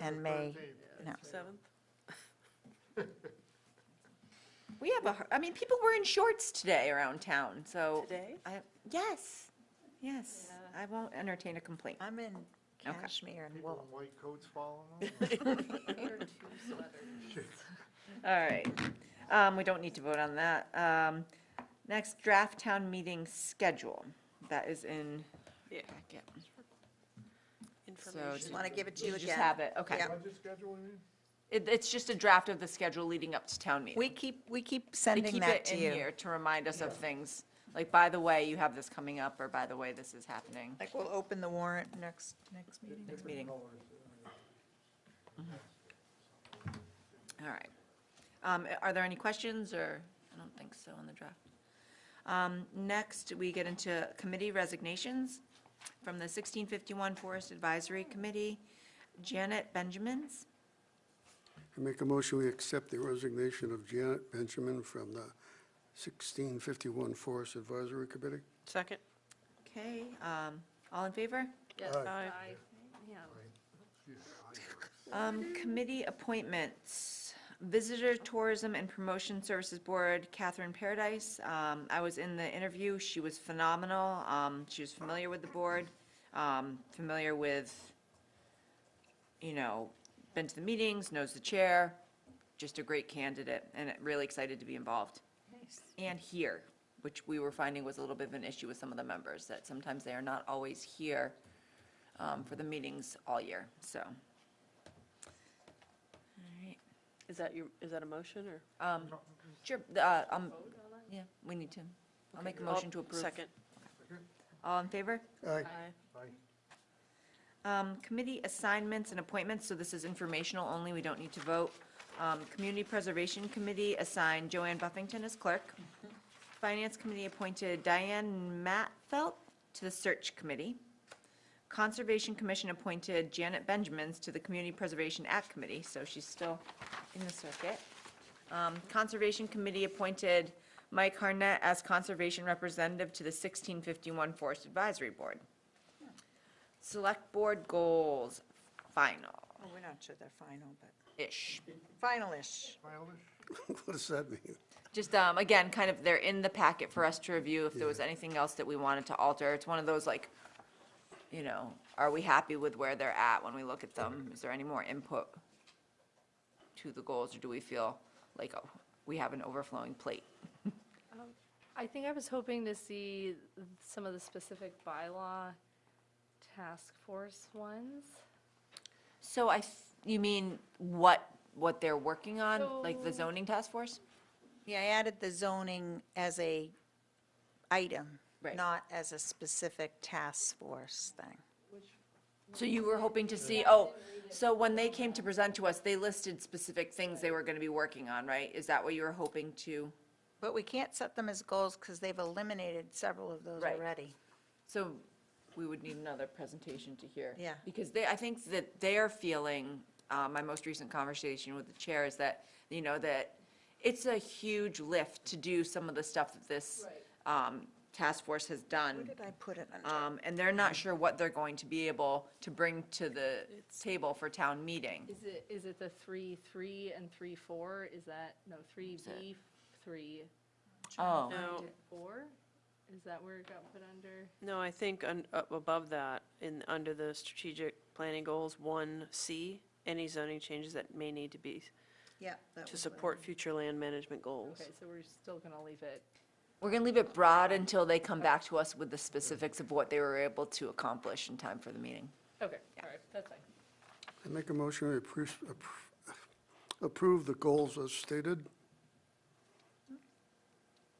and May, no. Seventh? We have a, har- I mean, people were in shorts today around town, so. Today? I- Yes, yes. I won't entertain a complaint. I'm in cashmere and People wool. in white coats following them? All right. Um, we don't need to vote on that. Um, next, draft town meeting schedule. That is in. Yeah. packet. Information. just Want to give it to you You again? just have it, okay. Yeah. Budget schedule, you mean? It, it's just a draft of the schedule leading up to town meeting. We keep, we keep They sending keep that it to in you. here to remind us of things, like, by the way, you have this coming up, or by the way, this is happening. Like, we'll open the warrant next, next meeting. Next meeting. All right. Um, a- Are there any questions, or, I don't think so on the draft. Um, Next, we get into committee resignations from the 1651 Forest Advisory Committee, Janet Benjamins. I make a motion, we accept the resignation of Janet Benjamin from the 1651 Forest Advisory Committee. Second? Okay, um, all in favor? Aye. Um, Committee appointments, Visitor Tourism and Promotion Services Board, Catherine Paradise. Um, I was in the interview, she was phenomenal. Um, She was familiar with the board, um, familiar with, you know, been to the meetings, knows the chair, just a great candidate, and really excited to be involved. And here, which we were finding was a little bit of an issue with some of the members, that sometimes they are not always here um, for the meetings all year, so. Alright, Is that your, is that a motion or? um, Sure, the, uh, um, yeah, we need to. I'll make a I'll- motion to approve. Oh, Second. All in favor? Aye. Aye. Aye. Um, Committee assignments and appointments, so this is informational only, we don't need to vote. Um, Community Preservation Committee assigned Joanne Buffington as clerk. Finance Committee appointed Diane Matfelt to the Search Committee. Conservation Commission appointed Janet Benjamins to the Community Preservation Act Committee, so she's still in the circuit. Um, Conservation Committee appointed Mike Harnett as Conservation Representative to the 1651 Forest Advisory Board. Select Board Goals, final-ish. Well, Oh, We're not sure they're final, but final-ish. Childish? What does that mean? Just, um, again, kind of, they're in the packet for us to review if there was anything else that we wanted to alter. It's one of those like, you know, are we happy with where they're at when we look at them? Is there any more input to the goals, or do we feel like oh, we have an overflowing plate? I think I was hoping to see some of the specific bylaw task force ones. So I, th- you mean what, what they're working on, like the So- zoning task force? Yeah, I added the zoning as a item, Right. not as a specific task force thing. So you were hoping to see, oh, so when they came to present to us, they listed specific things they were gonna be working on, right? Is that what you were hoping to? But we can't set them as goals because they've eliminated several of those Right. already. So we would need another presentation to hear. Yeah. Because they, I think that they're feeling, uh, my most recent conversation with the chair is that, you know, that it's a huge lift to do some of the stuff that this um, task force has Where done. did I put it under? Um, And they're not sure what they're going to be able to bring to the table for town meeting. Is it, is it the three, three and three, four? Is that, no, three B, three, Oh. No, four? Is that where it got put under? no, I think un- up above that, in, under the strategic planning goals, one C, any zoning changes that may need to be Yeah. that to was what I- support future land management goals. Okay, so we're still gonna leave it. We're going to leave it broad until they come back to us with the specifics of what they were able to accomplish in time for the meeting. Okay, all right, that's fine. I make a motion, we approve- appro- approve the goals as stated.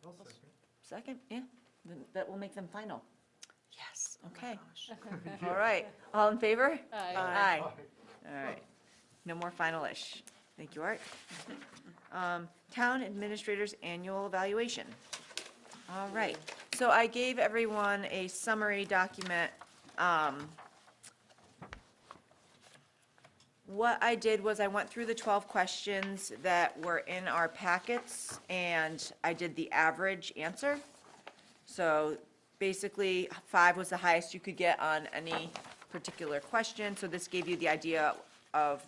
I'll second. Second, yeah, Then that will make them final. Yes. oh my Okay. gosh. All right, all in favor? Aye. Aye. All right, no more final-ish. Thank you, Art. Um, Town Administrator's Annual Evaluation. All right, so I gave everyone a summary document. um, What I did was I went through the 12 questions that were in our packets, and I did the average answer. So basically, five was the highest you could get on any particular question, so this gave you the idea of